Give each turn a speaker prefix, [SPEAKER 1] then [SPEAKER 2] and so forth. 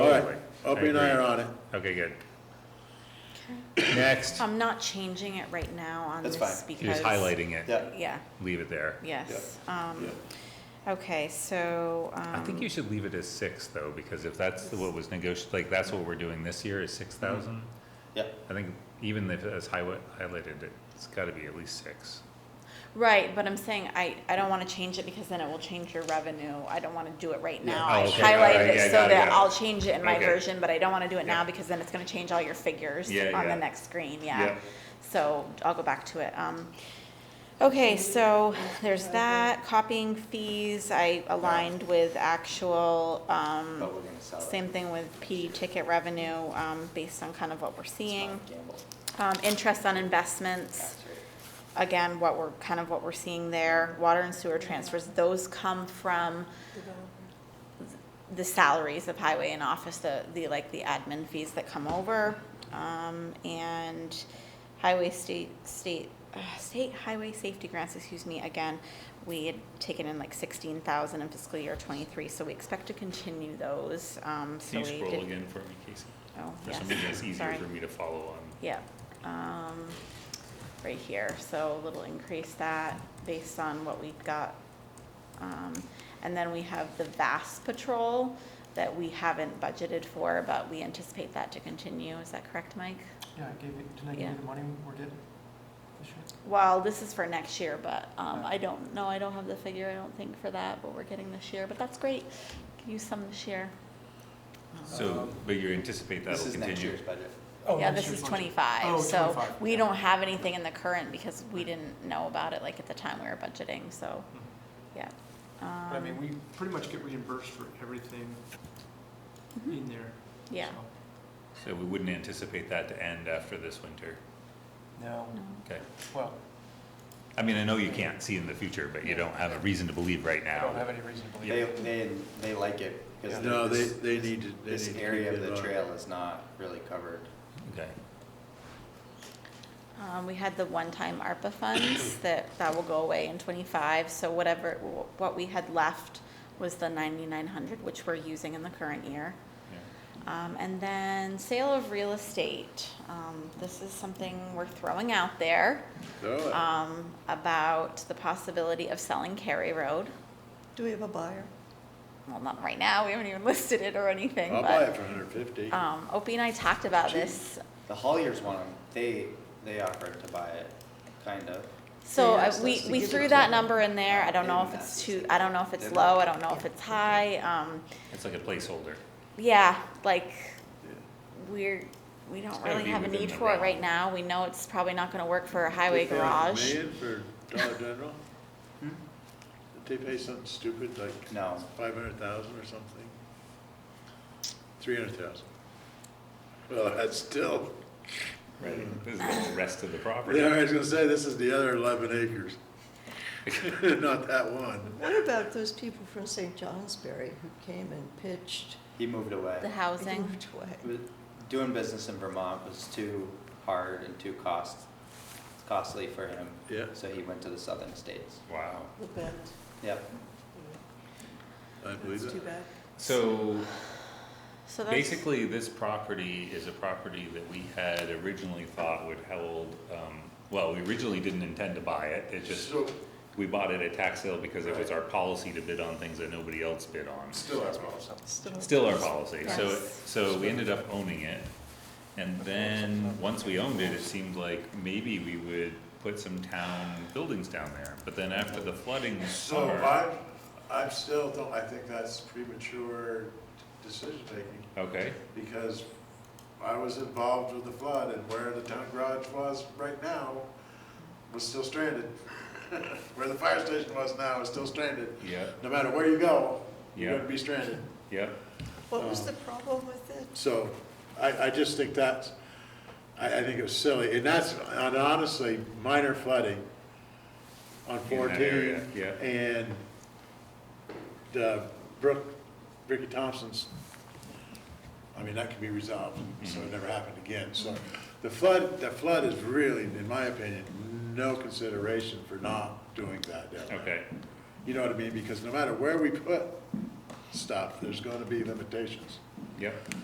[SPEAKER 1] Opie and I
[SPEAKER 2] agree.
[SPEAKER 1] are on it.
[SPEAKER 2] Okay, good. Next,
[SPEAKER 3] I'm not changing it right now on
[SPEAKER 4] That's
[SPEAKER 3] this
[SPEAKER 4] fine.
[SPEAKER 2] he was
[SPEAKER 3] because.
[SPEAKER 2] highlighting it.
[SPEAKER 4] Yeah,
[SPEAKER 3] Yeah,
[SPEAKER 2] Leave it there.
[SPEAKER 3] yes.
[SPEAKER 1] Yeah.
[SPEAKER 3] Um, okay, so, um.
[SPEAKER 2] I think you should leave it as six though, because if that's the- what was negotiated, like that's what we're doing this year is six thousand.
[SPEAKER 4] yeah.
[SPEAKER 2] I think even if it's highway highlighted, it's gotta be at least six.
[SPEAKER 3] Right, but I'm saying I, I don't wanna change it because then it will change your revenue. I don't wanna do it right now.
[SPEAKER 2] Oh,
[SPEAKER 3] I
[SPEAKER 2] okay. Alright,
[SPEAKER 3] highlighted it
[SPEAKER 2] yeah,
[SPEAKER 3] so
[SPEAKER 2] got it, got
[SPEAKER 3] that
[SPEAKER 2] it.
[SPEAKER 3] I'll change it in my
[SPEAKER 2] Okay.
[SPEAKER 3] version, but I don't wanna do it
[SPEAKER 2] Yeah.
[SPEAKER 3] now because then it's gonna change all your figures
[SPEAKER 2] Yeah,
[SPEAKER 3] on
[SPEAKER 2] yeah.
[SPEAKER 3] the next screen,
[SPEAKER 2] Yeah.
[SPEAKER 3] yeah. So I'll go back to it. Um, okay, so there's that, copying fees, I aligned with actual, um,
[SPEAKER 4] But we're gonna sell it.
[SPEAKER 3] same thing with PD ticket revenue, um, based on kind of what we're
[SPEAKER 4] It's not
[SPEAKER 3] seeing.
[SPEAKER 4] a gamble.
[SPEAKER 3] Um, interest on investments
[SPEAKER 4] Tax rate.
[SPEAKER 3] again, what we're, kind of what we're seeing there, water and sewer transfers, those come from the salaries of highway and office, the, the, like, the admin fees that come over. Um, and highway state, state, uh, state highway safety grants, excuse me, again, we had taken in like sixteen thousand in fiscal year twenty-three, so we expect to continue those, um, so
[SPEAKER 2] Can
[SPEAKER 3] we
[SPEAKER 2] you
[SPEAKER 3] did.
[SPEAKER 2] scroll again for me, Casey?
[SPEAKER 3] Oh,
[SPEAKER 2] For
[SPEAKER 3] yes,
[SPEAKER 2] some reason, it's easier
[SPEAKER 3] sorry. Uh-huh.
[SPEAKER 2] for me to follow on.
[SPEAKER 3] Yeah, um, right here, so a little increase that based on what we've got. Um, and then we have the VAST patrol that we haven't budgeted for, but we anticipate that to continue, is that correct, Mike?
[SPEAKER 5] Yeah, I gave you, didn't I give
[SPEAKER 3] Yeah.
[SPEAKER 5] you the money we're getting this year?
[SPEAKER 3] Well, this is for next year, but, um, I don't know, I don't have the figure, I don't think for that, what we're getting this year, but that's great. Can Use some this year.
[SPEAKER 2] So, but you anticipate
[SPEAKER 4] This
[SPEAKER 2] that'll
[SPEAKER 4] is next
[SPEAKER 2] continue?
[SPEAKER 4] year's budget.
[SPEAKER 5] Oh,
[SPEAKER 3] Yeah,
[SPEAKER 5] next
[SPEAKER 3] this
[SPEAKER 5] year's
[SPEAKER 3] is
[SPEAKER 5] budget.
[SPEAKER 3] twenty-five,
[SPEAKER 5] Oh,
[SPEAKER 3] so
[SPEAKER 5] 25,
[SPEAKER 3] we
[SPEAKER 5] yeah.
[SPEAKER 3] don't have anything in the current because we didn't know about it like at the time we were budgeting, so,
[SPEAKER 5] Mm-hmm.
[SPEAKER 3] yeah.
[SPEAKER 5] But I
[SPEAKER 3] Um,
[SPEAKER 5] mean, we pretty much get reimbursed for everything
[SPEAKER 3] Mhm.
[SPEAKER 5] in there.
[SPEAKER 3] Yeah.
[SPEAKER 5] so,
[SPEAKER 2] So we wouldn't anticipate that to end after this winter,
[SPEAKER 5] No,
[SPEAKER 3] No.
[SPEAKER 2] okay?
[SPEAKER 5] well,
[SPEAKER 2] I mean, I know you can't see in the future, but you don't have a reason to believe right
[SPEAKER 5] I
[SPEAKER 2] now.
[SPEAKER 5] don't have any reason to believe.
[SPEAKER 4] They,
[SPEAKER 5] it.
[SPEAKER 4] they, they like it because
[SPEAKER 5] Yeah.
[SPEAKER 1] No, they,
[SPEAKER 4] this,
[SPEAKER 1] they need to, they need to
[SPEAKER 4] this
[SPEAKER 1] keep
[SPEAKER 4] area of
[SPEAKER 1] it
[SPEAKER 4] the
[SPEAKER 1] on.
[SPEAKER 4] trail is not really covered.
[SPEAKER 2] Okay,
[SPEAKER 3] Um, we had the one-time ARPA funds that, that will go away in twenty-five, so whatever, what we had left was the ninety-nine hundred, which we're using in the current year.
[SPEAKER 2] yeah.
[SPEAKER 3] Um, and then sale of real estate, um, this is something we're throwing out there,
[SPEAKER 1] Throw it.
[SPEAKER 3] um, about the possibility of selling Cary Road.
[SPEAKER 6] Do we have a buyer?
[SPEAKER 3] Well, not right now, we haven't even listed it or anything,
[SPEAKER 1] I'll buy it
[SPEAKER 3] Um, but,
[SPEAKER 1] for hundred fifty.
[SPEAKER 3] um, Opie and I talked about
[SPEAKER 4] Gee.
[SPEAKER 3] this
[SPEAKER 4] The Holliers want 'em. They, they offered to buy it, kind of.
[SPEAKER 3] So
[SPEAKER 6] They
[SPEAKER 3] uh,
[SPEAKER 6] asked
[SPEAKER 3] we,
[SPEAKER 6] us to
[SPEAKER 3] we
[SPEAKER 6] give
[SPEAKER 3] threw
[SPEAKER 6] it
[SPEAKER 3] that
[SPEAKER 6] to them.
[SPEAKER 3] number in there, I don't know if
[SPEAKER 4] They
[SPEAKER 3] it's
[SPEAKER 4] asked
[SPEAKER 3] too,
[SPEAKER 4] us to.
[SPEAKER 3] I don't know if it's
[SPEAKER 4] They
[SPEAKER 3] low, I
[SPEAKER 4] looked.
[SPEAKER 3] don't know if it's high, um,
[SPEAKER 2] It's like a placeholder.
[SPEAKER 3] yeah, like, we're, we don't
[SPEAKER 2] gotta
[SPEAKER 3] really
[SPEAKER 2] be
[SPEAKER 3] have a
[SPEAKER 2] within
[SPEAKER 3] need
[SPEAKER 2] the
[SPEAKER 3] for it
[SPEAKER 2] realm.
[SPEAKER 3] right now, we know it's probably not gonna work for a highway garage.
[SPEAKER 1] Million for Dollar General?
[SPEAKER 4] Hmm?
[SPEAKER 1] Did they pay something stupid like
[SPEAKER 4] No,
[SPEAKER 1] five hundred thousand or something? Three hundred thousand. Well, that's still,
[SPEAKER 2] This is the rest of the property.
[SPEAKER 1] Mm-hmm. yeah, I was gonna say, this is the other eleven acres. Not that one.
[SPEAKER 6] What about those people from St. Johnsbury who came and pitched?
[SPEAKER 4] he moved away.
[SPEAKER 3] The
[SPEAKER 6] They
[SPEAKER 3] housing,
[SPEAKER 6] moved away.
[SPEAKER 4] It was- Doing business in Vermont was too hard and too cost, costly for him.
[SPEAKER 1] Yeah.
[SPEAKER 4] So he went to the southern states.
[SPEAKER 2] Wow.
[SPEAKER 6] The band.
[SPEAKER 4] Yep.
[SPEAKER 1] I believe
[SPEAKER 6] That's too
[SPEAKER 1] it.
[SPEAKER 6] bad.
[SPEAKER 2] So
[SPEAKER 3] so that's,
[SPEAKER 2] basically, this property is a property that we had originally thought would hold, um, well, we originally didn't intend to buy it. It just,
[SPEAKER 1] So-
[SPEAKER 2] we bought it at tax sale because it was our policy to bid on things that nobody else bid on.
[SPEAKER 1] Still our problem.
[SPEAKER 6] Still.
[SPEAKER 2] Still our policy, so,
[SPEAKER 3] Yes.
[SPEAKER 2] so we ended up owning it. And then, once we owned it, it seemed like maybe we would put some town buildings down there. But then after the flooding this
[SPEAKER 1] So
[SPEAKER 2] summer,
[SPEAKER 1] I, I still don't, I think that's premature decision taking,
[SPEAKER 2] okay,
[SPEAKER 1] because I was involved with the flood, and where the town garage was right now was still stranded. Where the fire station was now is still stranded.
[SPEAKER 2] yeah,
[SPEAKER 1] No matter where you go, you're
[SPEAKER 2] Yeah.
[SPEAKER 1] gonna be stranded.
[SPEAKER 2] yeah,
[SPEAKER 6] What
[SPEAKER 1] Um,
[SPEAKER 6] was the problem with it?
[SPEAKER 1] So I, I just think that's, I, I think it was silly, and that's, and honestly, minor flooding on
[SPEAKER 2] In that area,
[SPEAKER 1] fourteen.
[SPEAKER 2] yeah.
[SPEAKER 1] And the Brooke, Ricky Thompson's, I mean, that can be resolved, so
[SPEAKER 2] Mm-hmm.
[SPEAKER 1] it never happened again. So the flood, the flood is really, in my opinion, no consideration for not doing that down there.
[SPEAKER 2] okay,
[SPEAKER 1] You know what I mean? Because no matter where we put stuff, there's gonna be limitations.
[SPEAKER 2] yep.